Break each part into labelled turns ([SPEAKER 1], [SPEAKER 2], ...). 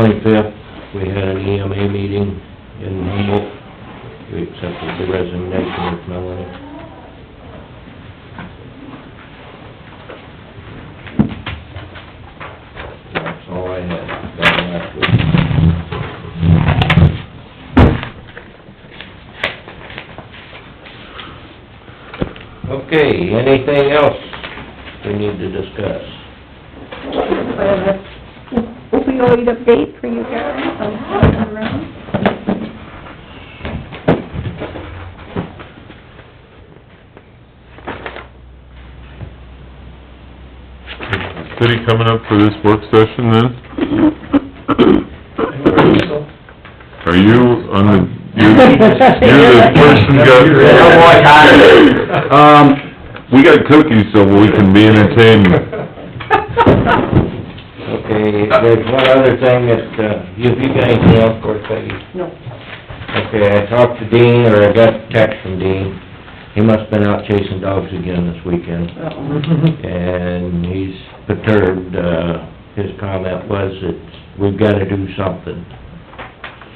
[SPEAKER 1] twenty-fifth, we had an EMA meeting in Humboldt. We accepted the resignation of Melanie. That's all I had, done last week. Okay, anything else we need to discuss?
[SPEAKER 2] opioid update for you guys, so, all around.
[SPEAKER 3] City coming up for this work session then? Are you on the, you're, you're the person got...
[SPEAKER 1] Oh, boy, hi.
[SPEAKER 3] Um, we got cookies so we can be entertained.
[SPEAKER 1] Okay, there's one other thing that, uh, you, you got anything else, of course, Peggy?
[SPEAKER 4] No.
[SPEAKER 1] Okay, I talked to Dean, or I got a text from Dean. He must've been out chasing dogs again this weekend. And he's perturbed, uh, his comment was that we've gotta do something.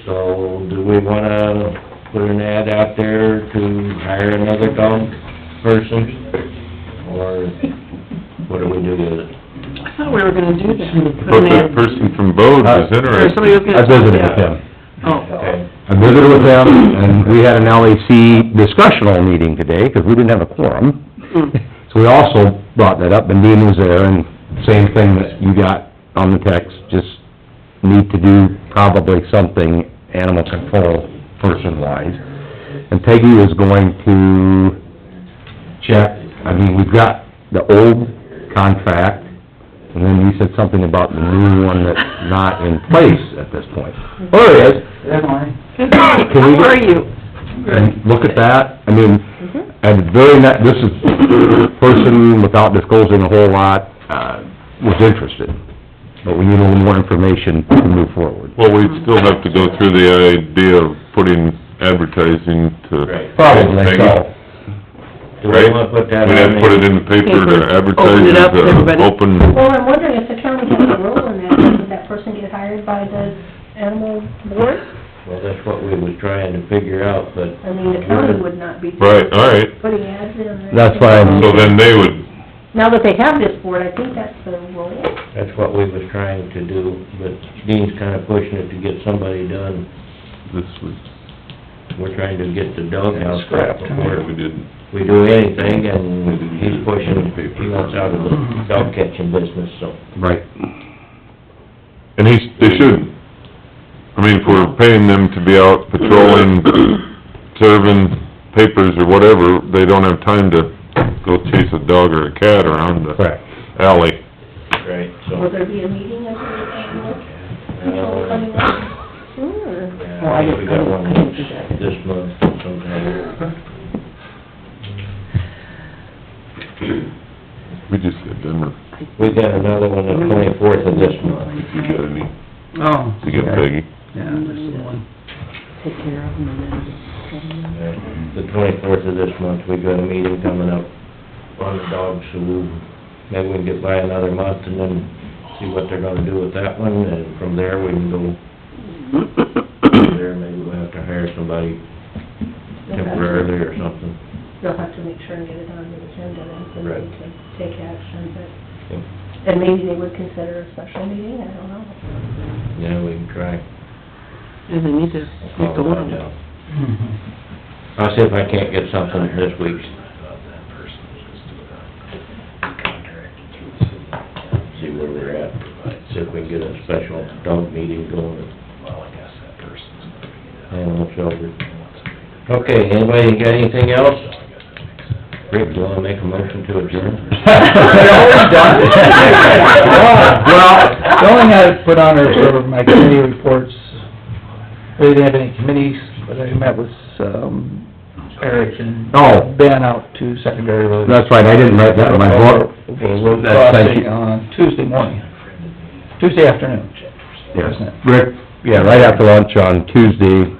[SPEAKER 1] So, do we wanna put an ad out there to hire another dog person? Or what do we do with it?
[SPEAKER 4] I thought we were gonna do that.
[SPEAKER 3] But that person from Bode
[SPEAKER 5] Uh,
[SPEAKER 3] was
[SPEAKER 4] Or somebody was
[SPEAKER 3] interested.
[SPEAKER 4] gonna...
[SPEAKER 5] I visited with
[SPEAKER 4] Yeah.
[SPEAKER 5] him.
[SPEAKER 4] Oh,
[SPEAKER 1] Okay.
[SPEAKER 5] I visited with him, and we had an LAC discussional meeting today, because we didn't have a quorum.
[SPEAKER 4] mm,
[SPEAKER 5] So we also brought that up, and Dean was there, and same thing that you got on the text, just need to do probably something animal control person-wise. And Peggy was going to check, I mean, we've got the old contract, and then you said something about the new one that's not in place at this point. Oh, it is,
[SPEAKER 4] good night,
[SPEAKER 5] Can we-
[SPEAKER 4] how are you? Mm-hmm.
[SPEAKER 5] and look at that, I mean, and very not, this is, person without disclosing a whole lot, uh, was interested, but we need a little more information to move forward.
[SPEAKER 3] Well, we still have to go through the idea of putting advertising to...
[SPEAKER 1] Right.
[SPEAKER 5] Probably, so,
[SPEAKER 1] Do we wanna put that on?
[SPEAKER 3] We'd have to put it in the paper
[SPEAKER 4] Paper.
[SPEAKER 3] to advertise
[SPEAKER 4] Open it
[SPEAKER 3] it,
[SPEAKER 4] up, everybody.
[SPEAKER 3] to open...
[SPEAKER 2] Well, I'm wondering if the county has a role in that, doesn't that person get hired by the animal board?
[SPEAKER 1] Well, that's what we was trying to figure out, but.
[SPEAKER 2] I mean, the county would not be
[SPEAKER 3] Right, all right.
[SPEAKER 2] putting ads in. or
[SPEAKER 5] That's why I'm-
[SPEAKER 3] So then they would
[SPEAKER 2] Now that they have this board, I think that's the role.
[SPEAKER 1] That's what we was trying to do, but Dean's kinda pushing it to get somebody done.
[SPEAKER 3] This was,
[SPEAKER 1] We're trying to get the doghouse scrapped
[SPEAKER 3] yeah,
[SPEAKER 1] before
[SPEAKER 3] we didn't,
[SPEAKER 1] we do anything, and he's pushing, he wants out of the dog catching business, so.
[SPEAKER 5] right.
[SPEAKER 3] and he, they shouldn't. I mean, if we're paying them to be out patrolling, serving papers or whatever, they don't have time to go chase a dog or a cat around the
[SPEAKER 5] Correct.
[SPEAKER 3] alley.
[SPEAKER 1] Right,
[SPEAKER 2] Will there be a meeting of the animal control coming up soon,
[SPEAKER 1] Yeah, I think we got one this month sometime.
[SPEAKER 3] We just got Denver,
[SPEAKER 1] We got another one the twenty-fourth of this month.
[SPEAKER 3] you got any,
[SPEAKER 6] Oh.
[SPEAKER 3] you got
[SPEAKER 6] okay.
[SPEAKER 3] Peggy?
[SPEAKER 6] Yeah, this is the one.
[SPEAKER 4] Take care of them and then...
[SPEAKER 1] The twenty-fourth of this month, we got a meeting coming up on the dog salute. Maybe we can get by another month and then see what they're gonna do with that one, and from there, we can go from there, maybe we'll have to hire somebody temporarily or something.
[SPEAKER 2] They'll have to make sure and get it on the agenda then, so
[SPEAKER 1] Right.
[SPEAKER 2] they can take action, but, and maybe they would consider a special meeting, I don't know.
[SPEAKER 1] Yeah, we can try.
[SPEAKER 4] And they need to
[SPEAKER 1] I'll
[SPEAKER 4] make a
[SPEAKER 1] find
[SPEAKER 4] little...
[SPEAKER 1] out. I'll see if I can't get something this week. See where we're at, see if we can get a special dog meeting going. Animal shelter. Okay, anybody got anything else? Rick, do you wanna make a motion to adjourn?
[SPEAKER 6] Well, the only thing I put on there for my committee reports, we didn't have any committees, but I met with, um, Eric and
[SPEAKER 5] Oh,
[SPEAKER 6] Ben out to secondary road.
[SPEAKER 5] that's right, I didn't write that in my book.
[SPEAKER 1] Okay, well,
[SPEAKER 5] That's- thank
[SPEAKER 6] Crossing
[SPEAKER 5] you.
[SPEAKER 6] on Tuesday morning, Tuesday afternoon,
[SPEAKER 5] Yes,
[SPEAKER 6] isn't it?
[SPEAKER 5] Rick, yeah, right after lunch on Tuesday,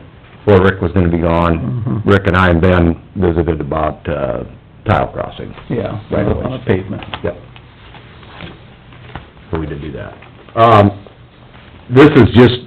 [SPEAKER 5] before Rick was gonna be gone,
[SPEAKER 6] Mhm.
[SPEAKER 5] Rick and I and Ben visited about, uh, tile crossing.
[SPEAKER 6] Yeah,
[SPEAKER 5] Right
[SPEAKER 6] right
[SPEAKER 5] away.
[SPEAKER 6] on the pavement.
[SPEAKER 5] Yep. So we did do that. Um, this is just